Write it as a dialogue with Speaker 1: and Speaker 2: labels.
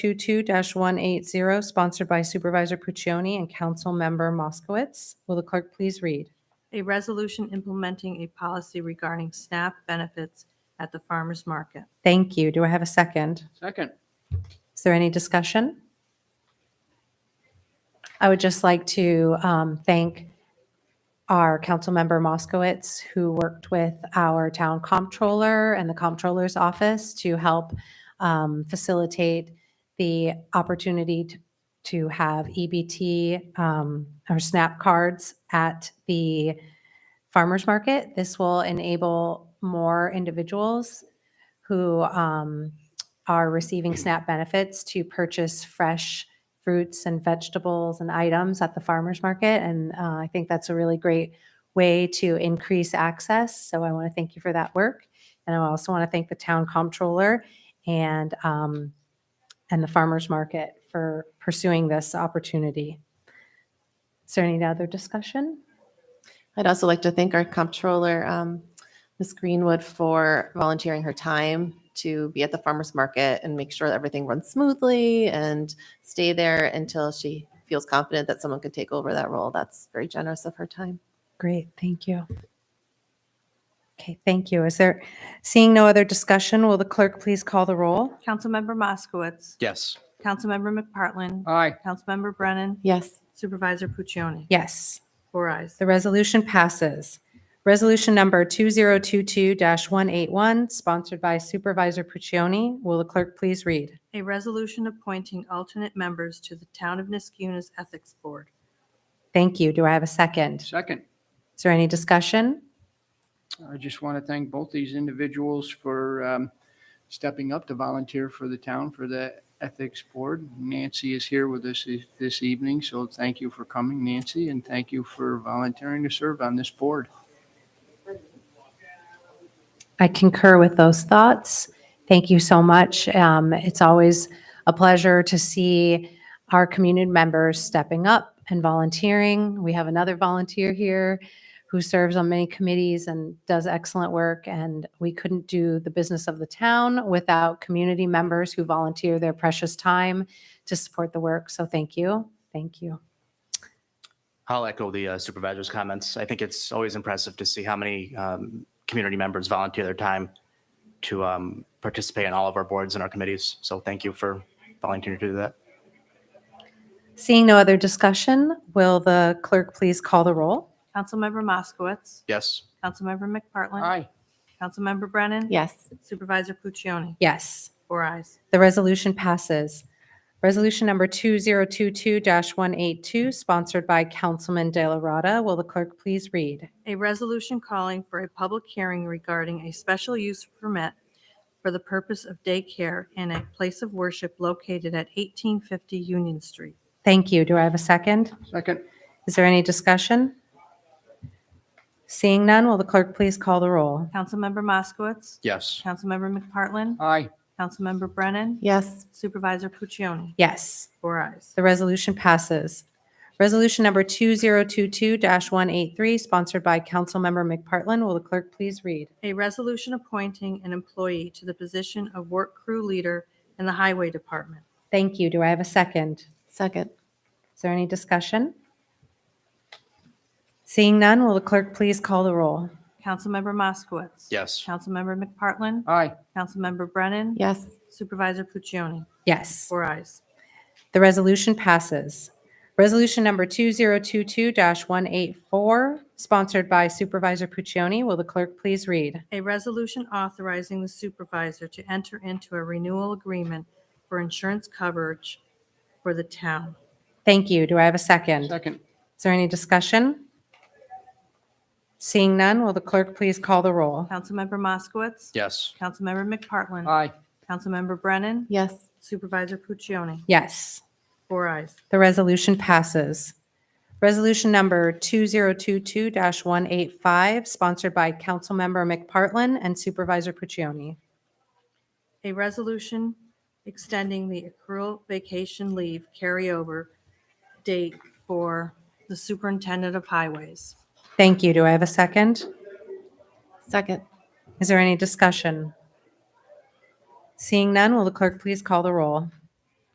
Speaker 1: 22-180, sponsored by Supervisor Puccioni and Councilmember Moskowitz. Will the clerk please read?
Speaker 2: A resolution implementing a policy regarding SNAP benefits at the farmer's market.
Speaker 1: Thank you. Do I have a second?
Speaker 3: Second.
Speaker 1: Is there any discussion? I would just like to um, thank our Councilmember Moskowitz, who worked with our town comptroller and the comptroller's office to help um, facilitate the opportunity to- to have EBT um, or SNAP cards at the farmer's market. This will enable more individuals who um, are receiving SNAP benefits to purchase fresh fruits and vegetables and items at the farmer's market. And uh, I think that's a really great way to increase access. So I want to thank you for that work. And I also want to thank the town comptroller and, um, and the farmer's market for pursuing this opportunity. Is there any other discussion?
Speaker 4: I'd also like to thank our comptroller, um, Ms. Greenwood, for volunteering her time to be at the farmer's market and make sure that everything runs smoothly and stay there until she feels confident that someone could take over that role. That's very generous of her time.
Speaker 1: Great, thank you. Okay, thank you. Is there, seeing no other discussion, will the clerk please call the roll?
Speaker 2: Councilmember Moskowitz.
Speaker 3: Yes.
Speaker 2: Councilmember McPartlin.
Speaker 3: Aye.
Speaker 2: Councilmember Brennan.
Speaker 4: Yes.
Speaker 2: Supervisor Puccioni.
Speaker 1: Yes.
Speaker 2: Four eyes.
Speaker 1: The resolution passes. Resolution number 2022-181, sponsored by Supervisor Puccioni. Will the clerk please read?
Speaker 2: A resolution appointing alternate members to the Town of Niskuna's Ethics Board.
Speaker 1: Thank you. Do I have a second?
Speaker 3: Second.
Speaker 1: Is there any discussion?
Speaker 3: I just want to thank both these individuals for um, stepping up to volunteer for the town for the Ethics Board. Nancy is here with us e- this evening, so thank you for coming, Nancy, and thank you for volunteering to serve on this board.
Speaker 1: I concur with those thoughts. Thank you so much. Um, It's always a pleasure to see our community members stepping up and volunteering. We have another volunteer here who serves on many committees and does excellent work. And we couldn't do the business of the town without community members who volunteer their precious time to support the work. So thank you. Thank you.
Speaker 5: I'll echo the uh, supervisor's comments. I think it's always impressive to see how many um, community members volunteer their time to um, participate in all of our boards and our committees. So thank you for volunteering to do that.
Speaker 1: Seeing no other discussion, will the clerk please call the roll?
Speaker 2: Councilmember Moskowitz.
Speaker 5: Yes.
Speaker 2: Councilmember McPartlin.
Speaker 3: Aye.
Speaker 2: Councilmember Brennan.
Speaker 4: Yes.
Speaker 2: Supervisor Puccioni.
Speaker 1: Yes.
Speaker 2: Four eyes.
Speaker 1: The resolution passes. Resolution number 2022-182, sponsored by Councilman De La Rada. Will the clerk please read?
Speaker 2: A resolution calling for a public hearing regarding a special use permit for the purpose of daycare in a place of worship located at 1850 Union Street.
Speaker 1: Thank you. Do I have a second?
Speaker 3: Second.
Speaker 1: Is there any discussion? Seeing none, will the clerk please call the roll?
Speaker 2: Councilmember Moskowitz.
Speaker 5: Yes.
Speaker 2: Councilmember McPartlin.
Speaker 3: Aye.
Speaker 2: Councilmember Brennan.
Speaker 4: Yes.
Speaker 2: Supervisor Puccioni.
Speaker 1: Yes.
Speaker 2: Four eyes.
Speaker 1: The resolution passes. Resolution number 2022-183, sponsored by Councilmember McPartlin. Will the clerk please read?
Speaker 2: A resolution appointing an employee to the position of work crew leader in the Highway Department.
Speaker 1: Thank you. Do I have a second?
Speaker 4: Second.
Speaker 1: Is there any discussion? Seeing none, will the clerk please call the roll?
Speaker 2: Councilmember Moskowitz.
Speaker 5: Yes.
Speaker 2: Councilmember McPartlin.
Speaker 3: Aye.
Speaker 2: Councilmember Brennan.
Speaker 4: Yes.
Speaker 2: Supervisor Puccioni.
Speaker 1: Yes,
Speaker 2: Four eyes.
Speaker 1: the resolution passes. Resolution number 2022-184, sponsored by Supervisor Puccioni. Will the clerk please read?
Speaker 2: A resolution authorizing the supervisor to enter into a renewal agreement for insurance coverage for the town.
Speaker 1: Thank you. Do I have a second?
Speaker 3: Second.
Speaker 1: Is there any discussion? Seeing none, will the clerk please call the roll?
Speaker 2: Councilmember Moskowitz.
Speaker 5: Yes.
Speaker 2: Councilmember McPartlin.
Speaker 3: Aye.
Speaker 2: Councilmember Brennan.
Speaker 4: Yes.
Speaker 2: Supervisor Puccioni.
Speaker 1: Yes.
Speaker 2: Four eyes.
Speaker 1: The resolution passes. Resolution number 2022-185, sponsored by Councilmember McPartlin and Supervisor Puccioni.
Speaker 2: A resolution extending the accrual vacation leave carryover date for the superintendent of highways.
Speaker 1: Thank you. Do I have a second?
Speaker 4: Second.
Speaker 1: Is there any discussion? Seeing none, will the clerk please call the roll?